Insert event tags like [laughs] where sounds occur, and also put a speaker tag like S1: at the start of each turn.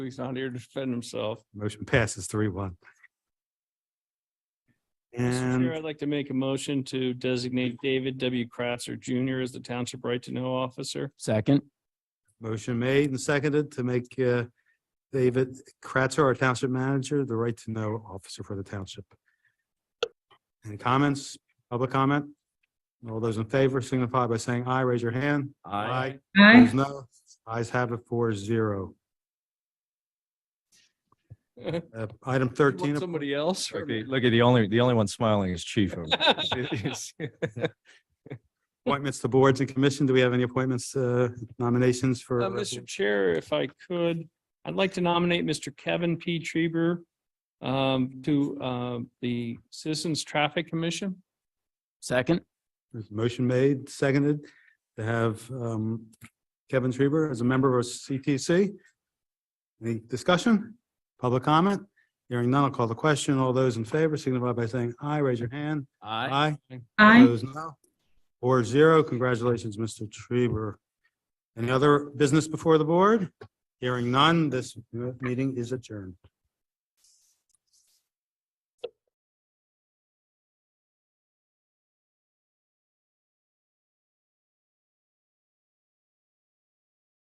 S1: He's not here to defend himself.
S2: Motion passes three one.
S1: Mr. Chair,
S2: And
S1: I'd like to make a motion to designate David W. Kratzer Jr. as the Township Right to Know Officer.
S3: Second,
S2: motion made and seconded to make uh, David Kratzer, our township manager, the right to know officer for the township. Any comments, public comment? All those in favor signify by saying aye, raise your hand.
S3: Aye.
S2: Aye.
S4: Aye.
S2: Opposed, No, ayes have it four zero.
S1: [laughs] You
S2: Uh, Item
S1: want
S2: thirteen.
S1: Somebody else? or
S5: Look
S1: me?
S5: at, look at the only, the only one smiling is Chief. over
S2: Appointments to boards and commission. Do we have any appointments, uh, nominations
S1: [laughs]
S2: for?
S3: [laughs]
S1: Uh, Mr. Chair, if I could, I'd like to nominate Mr. Kevin P. Treber um, to uh, the Citizens Traffic Commission.
S3: second,
S2: There's a Motion made, seconded to have um, Kevin Schreiber as a member of CTC. Any discussion? Public comment? Hearing none, I'll call the question. All those in favor signify by saying aye, raise your hand.
S3: aye.
S2: Aye.
S4: Aye.
S2: Opposed, no. Four zero. Congratulations, Mr. Schreiber. Any other business before the board? Hearing none, this meeting is adjourned.